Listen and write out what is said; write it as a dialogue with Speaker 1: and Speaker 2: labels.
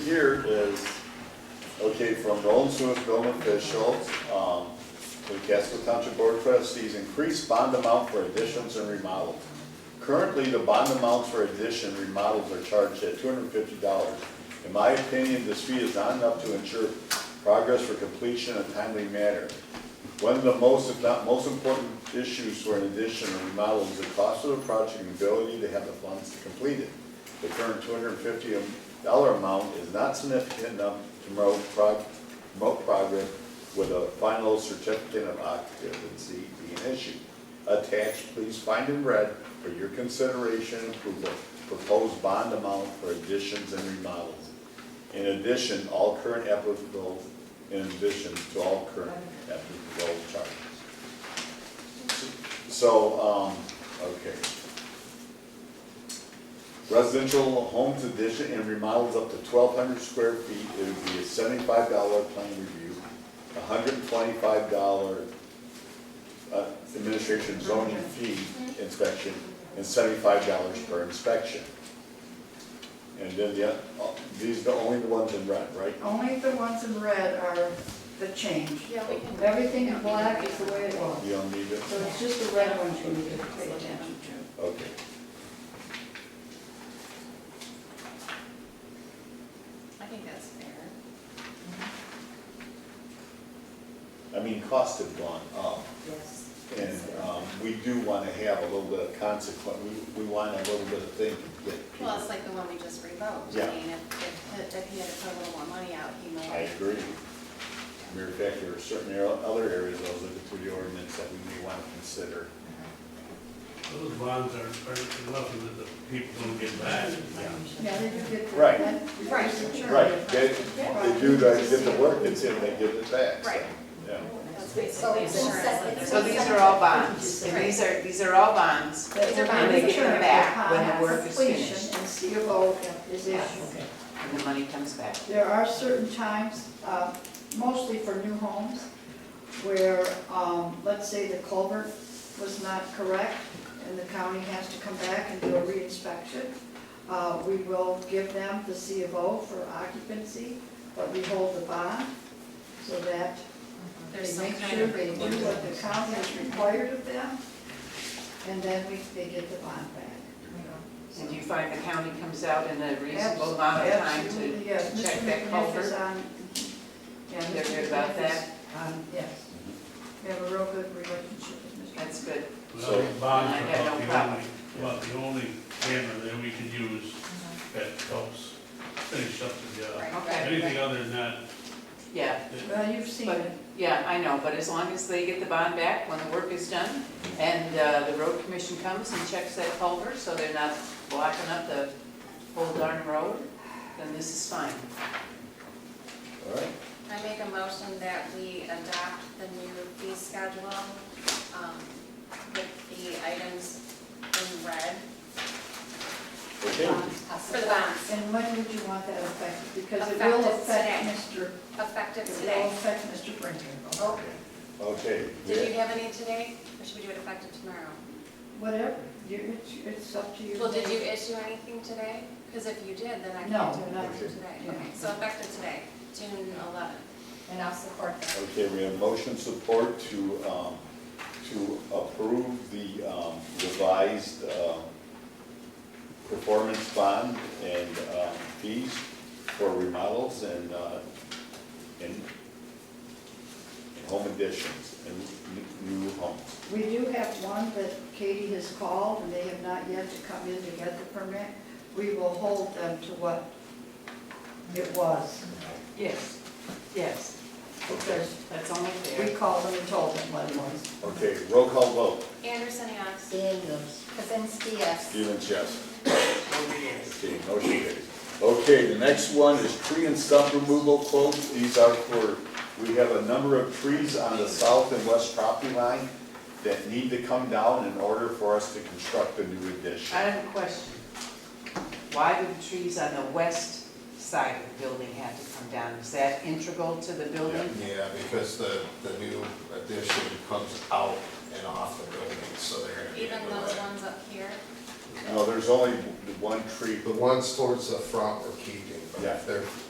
Speaker 1: here is, okay, from Roland Lewis, Roman officials, um, the Casco Township Board of Trustees, increase bond amount for additions and remodels. Currently, the bond amounts for addition remodels are charged at two hundred and fifty dollars. In my opinion, this fee is not enough to ensure progress for completion in a timely manner. One of the most, if not most important issues for an addition or remodel is the cost of the project and ability to have the funds to complete it. The current two hundred and fifty dollar amount is not significant enough to promote prog- promote progress with a final certificate of occupancy being issued. Attached, please find in red for your consideration and approval, proposed bond amount for additions and remodels. In addition, all current applicable, in addition to all current applicable charges. So, um, okay. Residential homes addition and remodels up to twelve hundred square feet, it would be a seventy-five dollar plan review, hundred and twenty-five dollar uh, administration zoning fee inspection, and seventy-five dollars per inspection. And then the, oth- uh, these are only the ones in red, right?
Speaker 2: Only the ones in red are the change.
Speaker 3: Yeah, we can.
Speaker 2: Everything in black is the way it was.
Speaker 1: You don't need it?
Speaker 2: So it's just the red ones you need to pay attention to.
Speaker 1: Okay.
Speaker 3: I think that's fair.
Speaker 1: I mean, costs have gone up.
Speaker 4: Yes.
Speaker 1: And um, we do want to have a little bit of consequence, we, we want a little bit of thing to get people.
Speaker 3: Well, it's like the one we just revoked.
Speaker 1: Yeah.
Speaker 3: I mean, if, if, if he had to put a little more money out, he
Speaker 1: I
Speaker 3: might.
Speaker 1: agree. Matter of fact, there are certain ar- other areas of the the ordinance that we may want to consider.
Speaker 5: Those bonds are, are nothing that the people don't get back.
Speaker 2: Yeah, they do get the.
Speaker 1: Right.
Speaker 2: that-
Speaker 3: Right.
Speaker 2: it's insured.
Speaker 1: Right, they, they do, they get the work that's in, they give it back. so,
Speaker 3: Right.
Speaker 1: Yeah.
Speaker 3: That's basically
Speaker 4: So-
Speaker 3: insurance. that
Speaker 4: So
Speaker 3: they're-
Speaker 4: these are all bonds, and these are, these are all bonds.
Speaker 2: That
Speaker 3: These are
Speaker 2: will
Speaker 3: bonds.
Speaker 2: be
Speaker 3: They get
Speaker 4: them
Speaker 2: insured
Speaker 4: back when the
Speaker 2: upon
Speaker 4: work is
Speaker 2: completion
Speaker 4: finished.
Speaker 2: And CFO is
Speaker 4: Yeah,
Speaker 2: issued.
Speaker 4: And the money comes back.
Speaker 2: There are certain times, uh, mostly for new homes, where, um, let's say the culvert was not correct, and the county has to come back and do a reinspection. Uh, We will give them the C of O for occupancy, but we hold the bond, so that they
Speaker 3: There's some
Speaker 2: make
Speaker 3: kind
Speaker 2: sure
Speaker 3: of.
Speaker 2: they do what the county has required of them, and then we, they get the bond back.
Speaker 4: And you find the county comes out in a reasonable amount of time to,
Speaker 2: Absolutely, yes.
Speaker 4: check
Speaker 2: Mr. McNiff
Speaker 4: that
Speaker 2: is
Speaker 4: culvert?
Speaker 2: on- yeah,
Speaker 4: they're
Speaker 2: Mr.
Speaker 4: good about
Speaker 2: McNiff is-
Speaker 4: that? Um,
Speaker 2: Yes. We have a real good relationship with Mr.
Speaker 4: That's good.
Speaker 5: Well, the bonds
Speaker 4: I
Speaker 5: are
Speaker 4: had no
Speaker 5: about the
Speaker 4: problem.
Speaker 5: only, about the only hammer that we can use that helps finish up the job.
Speaker 3: Right, right,
Speaker 5: Anything
Speaker 3: right.
Speaker 5: other than that,
Speaker 4: Yeah,
Speaker 2: Well, you've seen
Speaker 4: but,
Speaker 2: it.
Speaker 4: yeah, I know, but as long as they get the bond back when the work is done, and uh, the road commission comes and checks that culvert, so they're not blocking up the whole darn road, then this is fine.
Speaker 1: All right,
Speaker 3: I make a motion that we adopt the new fee schedule, um, with the items in red
Speaker 1: okay.
Speaker 3: for the bonds,
Speaker 2: And when would you want that affected? Because it will
Speaker 3: Effective
Speaker 2: affect Mr.,
Speaker 3: effective
Speaker 2: it will
Speaker 3: today.
Speaker 2: affect Mr. Brinker.
Speaker 3: Oh,
Speaker 1: Okay.
Speaker 3: did you
Speaker 1: yeah.
Speaker 3: have any today, or should we do it effective tomorrow?
Speaker 2: Whatever, you, it's, it's up to you.
Speaker 3: Well, did you issue anything today? Because if you did, then I
Speaker 2: No,
Speaker 3: can't do
Speaker 2: nothing.
Speaker 3: nothing today.
Speaker 2: Yeah.
Speaker 3: Okay, so effective today, June eleventh. And I'll support that.
Speaker 1: Okay, we have motion support to, um, to approve the um, revised, um, performance bond and, um, fees for remodels and, uh, and and home additions and n- new homes.
Speaker 2: We do have one that Katie has called, and they have not yet to come in to get the permit. We will hold them to what it was,
Speaker 4: Yes, yes,
Speaker 2: because
Speaker 4: that's only
Speaker 2: we
Speaker 4: fair.
Speaker 2: called them and told them what it was.
Speaker 1: Okay, roll call vote.
Speaker 3: Anderson, yes.
Speaker 2: Daniels.
Speaker 3: Kazinsky, yes.
Speaker 1: Stevens, yes. Okay, motion carries. Okay, the next one is tree and stump removal quotes. These are for, we have a number of trees on the south and west property line that need to come down in order for us to construct a new
Speaker 4: I
Speaker 1: addition.
Speaker 4: have a question. Why do the trees on the west side of the building have to come down? Is that integral to the building?
Speaker 6: Yeah, because the, the new addition comes out and off the building, so they're gonna be. in
Speaker 3: Even
Speaker 6: the
Speaker 3: those
Speaker 6: way.
Speaker 3: ones up here,
Speaker 1: No, there's only one tree,
Speaker 6: The ones towards the front we're keeping, but
Speaker 1: Yeah.
Speaker 6: if they're